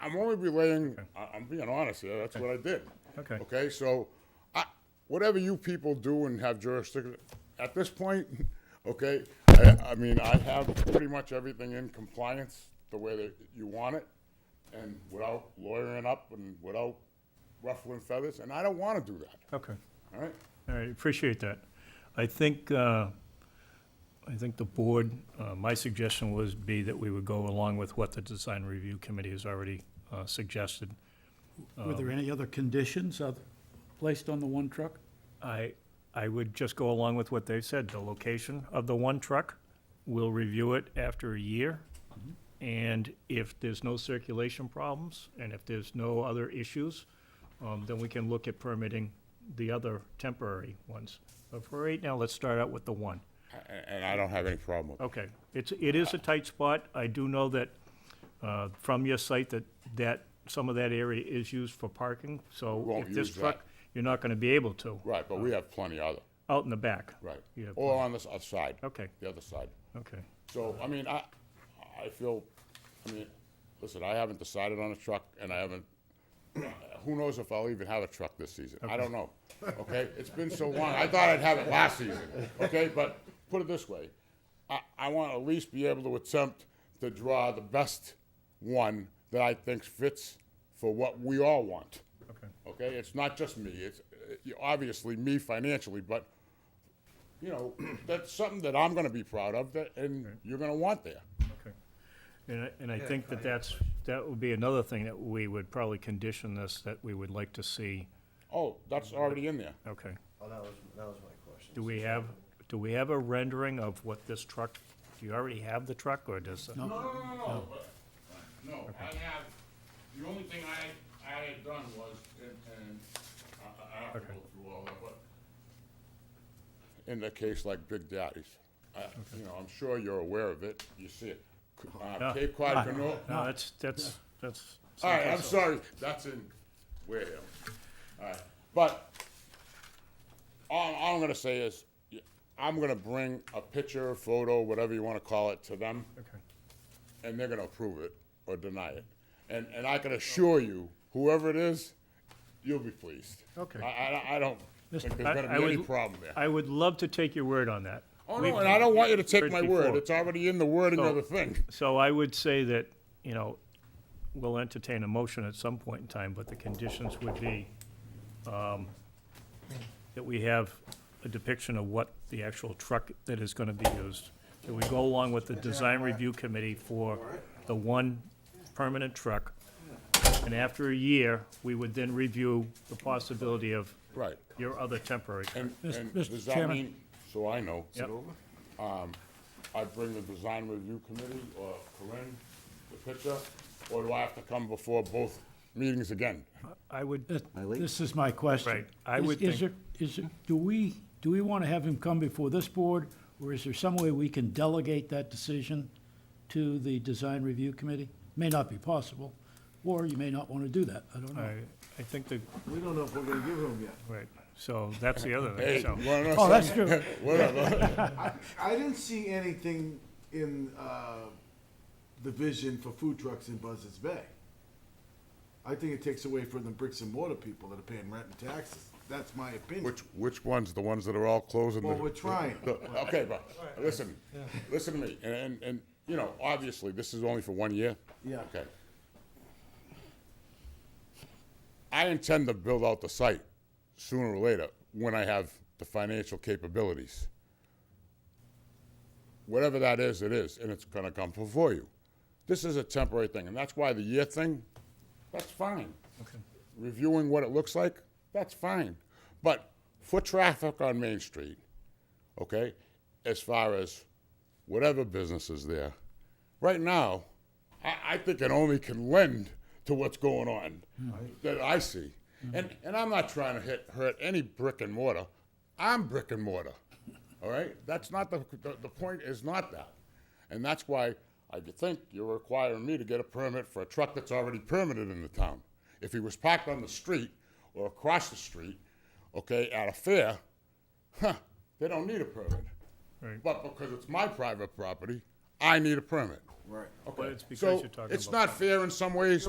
I'm only relaying, I- I'm being honest here, that's what I did. Okay. Okay, so, I, whatever you people do and have jurisdiction, at this point, okay, I, I mean, I have pretty much everything in compliance the way that you want it, and without lawyering up and without ruffling feathers, and I don't wanna do that, Okay, all right? all right, appreciate that. I think, uh, I think the board, uh, my suggestion was be that we would go along with what the design review committee has already uh, suggested. Were there any other conditions oth- placed on the one truck? I, I would just go along with what they said, the location of the one truck, we'll review it after a year. And if there's no circulation problems, and if there's no other issues, um, then we can look at permitting the other temporary ones. But for right now, let's start out with the one. A- a- And I don't have any problem with it. Okay, it's, it is a tight spot. I do know that, uh, from your site that, that, some of that area is used for parking, so Won't if this use that. truck, you're not gonna be able to, Right, but we have plenty other, out in the back. right? Oh. You have Or on this other side. Okay. The other side. Okay, So, I mean, I, I feel, I mean, listen, I haven't decided on a truck, and I haven't, who knows if I'll even have a truck this season? I don't know, okay? It's been so long, I thought I'd have it last season, okay? But put it this way, I, I want to at least be able to attempt to draw the best one that I think fits for what we all want. Okay. Okay, it's not just me, it's, uh, obviously me financially, but you know, that's something that I'm gonna be proud of, that, and you're gonna want there. okay. And I, and I think that that's, that would be another thing that we would probably condition this, that we would like to see. Oh, that's already in there. Okay, Oh, that was, that was my question. do we have, do we have a rendering of what this truck, do you already have the truck, or does? No. No, no, no, Oh. no, but- no, I have, the only thing I, I had done was, and, and I, I have to go through all that, but in the case like Big Daddy's, I, you know, I'm sure you're aware of it, you see it. C- Uh, Yeah. Cape Cod Canoe, No, that's, that's, that's. All right, I'm sorry, that's in Wareham. All right, but all, all I'm gonna say is, y- I'm gonna bring a picture, photo, whatever you wanna call it, to them, Okay. and they're gonna approve it or deny it. And, and I can assure you, whoever it is, you'll be pleased. Okay. I, I, I don't think there's I- I gonna be any would- problem there. I would love to take your word on that. Oh, We've- no, and I don't want you to heard take my word, before. it's already in the wording So- of the thing. So I would say that, you know, we'll entertain a motion at some point in time, but the conditions would be um, that we have a depiction of what the actual truck that is going to be used, that we go along with the design review committee for the one permanent truck. And after a year, we would then review the possibility of Right. your other temporary. And, Mis- and Mr. does that Chairman. mean, so I know. Yep. Um, I bring the design review committee or Corinne the picture, or do I have to come before both meetings again? I would, That- This is my question. Right, I Is- would is think- there- Is, there- do we, do we want to have him come before this board, or is there some way we can delegate that decision to the design review committee? May not be possible, or you may not want to do that, I don't I, know. I think the, We don't know if we're gonna give them yet. right, so that's the other Hey, thing, so. you wanna know Oh, that's something? true. Whatever. I, I didn't see anything in, uh, the vision for food trucks in Buzzards Bay. I think it takes away from the bricks and mortar people that are paying rent and taxes. That's my opinion. Which, which ones? The ones that are all closing? the- Well, we're trying. the- Okay, but, listen, listen to me, and, and, and, you know, obviously, this is only for one year. Yeah. Okay. I intend to build out the site sooner or later, when I have the financial capabilities. Whatever that is, it is, and it's gonna come before you. This is a temporary thing, and that's why the year thing, that's fine. Reviewing what it looks like, that's fine. But foot traffic on Main Street, okay, as far as whatever business is there, right now, I, I think it only can lend to what's going on that I see. And, and I'm not trying to hit, hurt any brick and mortar. I'm brick and mortar. All right? That's not the, the, the point, is not that. And that's why I think you're requiring me to get a permit for a truck that's already permitted in the town. If he was parked on the street or across the street, okay, at a fair, huh, they don't need a permit. Right. But because it's my private property, I need a permit. Right. Okay. But it's because so you're talking it's about- not fair in some ways.